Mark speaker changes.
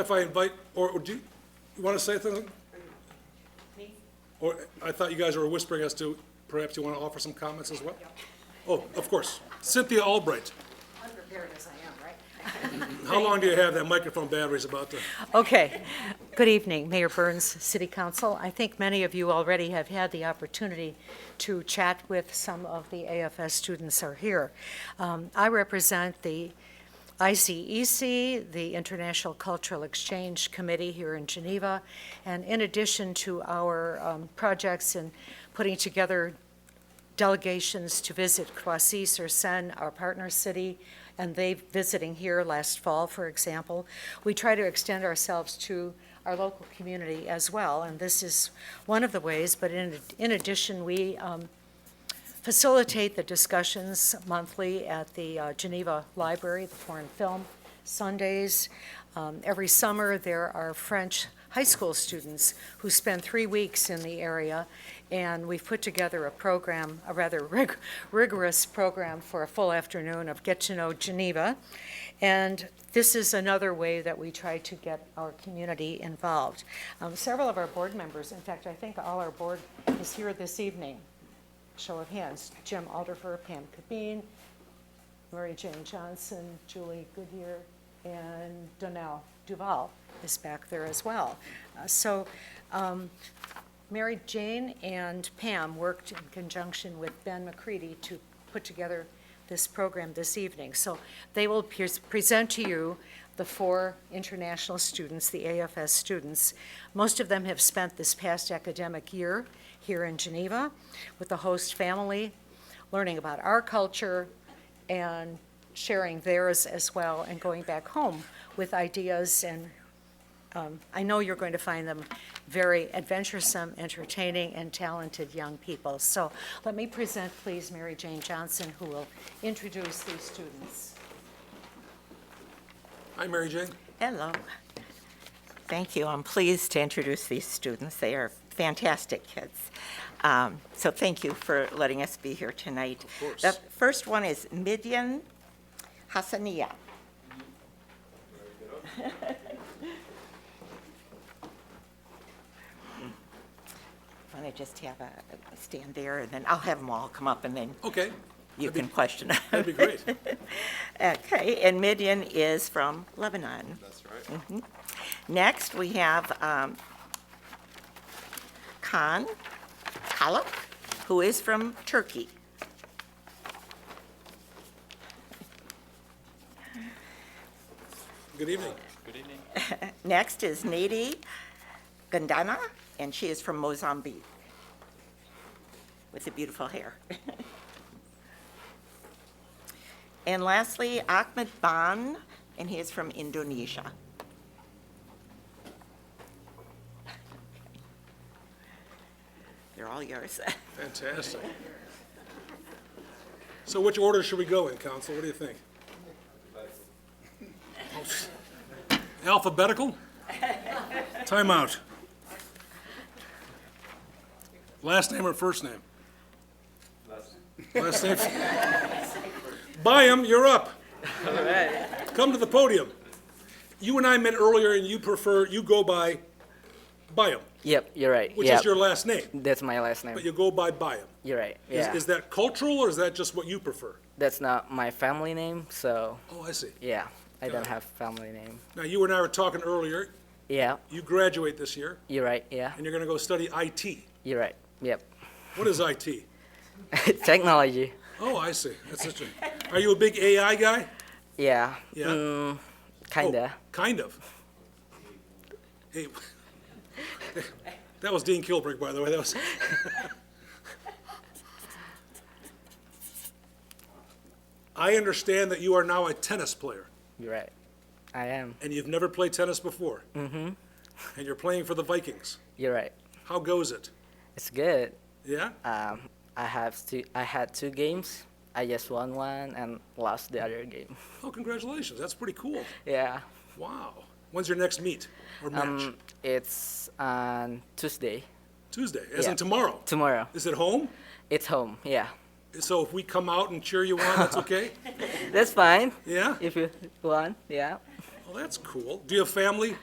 Speaker 1: If I invite, or or do, you- you want to say something?
Speaker 2: Me?
Speaker 1: Or I thought you guys were whispering as to perhaps you want to offer some comments as well? Oh, of course. Cynthia Albright,
Speaker 2: Unprepared as I am, right?
Speaker 1: how long do you have? That microphone battery's about to,
Speaker 2: Okay. Good evening, Mayor Burns, City Council. I think many of you already have had the opportunity to chat with some of the AFS students are here. Um, I represent the ICEC, the International Cultural Exchange Committee here in Geneva, and in addition to our um, projects in putting together delegations to visit Croissy, sur Seine, our partner city, and they visiting here last fall, for example. We try to extend ourselves to our local community as well, and this is one of the ways, but in, in addition, we um, facilitate the discussions monthly at the uh, Geneva Library, the Foreign Film Sundays. Um, Every summer, there are French high school students who spend three weeks in the area, and we've put together a program, a rather rig- rigorous program for a full afternoon of Get to Know Geneva. And this is another way that we try to get our community involved. Um, Several of our board members, in fact, I think all our board is here this evening show of hands, Jim Alderfer, Pam Kabine, Mary Jane Johnson, Julie Goodyear, and Donnell Duval is back there as well. Uh, So um, Mary Jane and Pam worked in conjunction with Ben McCready to put together this program this evening. So they will pres- present to you the four international students, the AFS students. Most of them have spent this past academic year here in Geneva with the host family, learning about our culture and sharing theirs as well and going back home with ideas and I know you're going to find them very adventuresome, entertaining, and talented young people. So let me present, please, Mary Jane Johnson, who will introduce these students.
Speaker 1: hi, Mary Jane.
Speaker 3: Hello. Thank you. I'm pleased to introduce these students. They are fantastic kids. Um, So thank you for letting us be here tonight. Of
Speaker 1: course.
Speaker 3: The first one is Midian Hassania. Want to just have a a stand there, and then I'll have them all come up, and then
Speaker 1: Okay,
Speaker 3: you can question them.
Speaker 1: that'd be great.
Speaker 3: Okay, and Midian is from Lebanon. Mm-hmm.
Speaker 4: That's right.
Speaker 3: Next, we have um, Khan Kalak, who is from Turkey.
Speaker 1: Good evening.
Speaker 4: Good evening.
Speaker 3: Next is Nady Gandana, and she is from Mozambique, with the beautiful hair. And lastly, Ahmed Ban, and he is from Indonesia. They're all yours.
Speaker 1: Fantastic. So which order should we go in, council? What do you think? Alphabetical? Timeout. Last name or first name? Last name. Byam, you're up. Come to the podium. You and I met earlier, and you prefer, you go by Byam,
Speaker 5: Yep, you're right.
Speaker 1: which
Speaker 5: yep.
Speaker 1: is your last name,
Speaker 5: That's my last name.
Speaker 1: but you go by Byam.
Speaker 5: You're right.
Speaker 1: Is,
Speaker 5: Yeah.
Speaker 1: is that cultural or is that just what you prefer?
Speaker 5: That's not my family name, so
Speaker 1: Oh, I see.
Speaker 5: yeah, I
Speaker 1: Got
Speaker 5: don't
Speaker 1: it.
Speaker 5: have family name.
Speaker 1: Now, you and I were talking earlier.
Speaker 5: Yeah,
Speaker 1: You graduate this year
Speaker 5: you're right. Yeah,
Speaker 1: and you're going to go study IT.
Speaker 5: you're right. Yep.
Speaker 1: What is IT?
Speaker 5: Technology.
Speaker 1: Oh, I see. That's interesting. Are you a big AI guy?
Speaker 5: Yeah.
Speaker 1: Yeah. Oh,
Speaker 5: Mm, kinda.
Speaker 1: kind of. Hey, that was Dean Kilbrick, by the way. That was. I understand that you are now a tennis player.
Speaker 5: You're right. I am.
Speaker 1: and you've never played tennis before. Mm-hmm. And you're playing for the Vikings.
Speaker 5: You're right.
Speaker 1: How goes it?
Speaker 5: It's good.
Speaker 1: Yeah?
Speaker 5: Um, I have two. I had two games. I just won one and lost the other game.
Speaker 1: Oh, congratulations. That's pretty cool.
Speaker 5: Yeah.
Speaker 1: Wow. When's your next meet or match?
Speaker 5: Um, it's on Tuesday.
Speaker 1: Tuesday, as
Speaker 5: yeah.
Speaker 1: in tomorrow.
Speaker 5: Tomorrow.
Speaker 1: Is it home?
Speaker 5: It's home. Yeah.
Speaker 1: So if we come out and cheer you on, that's okay?
Speaker 5: That's fine.
Speaker 1: Yeah?
Speaker 5: If you want. Yeah.
Speaker 1: Well, that's cool. Do you have family?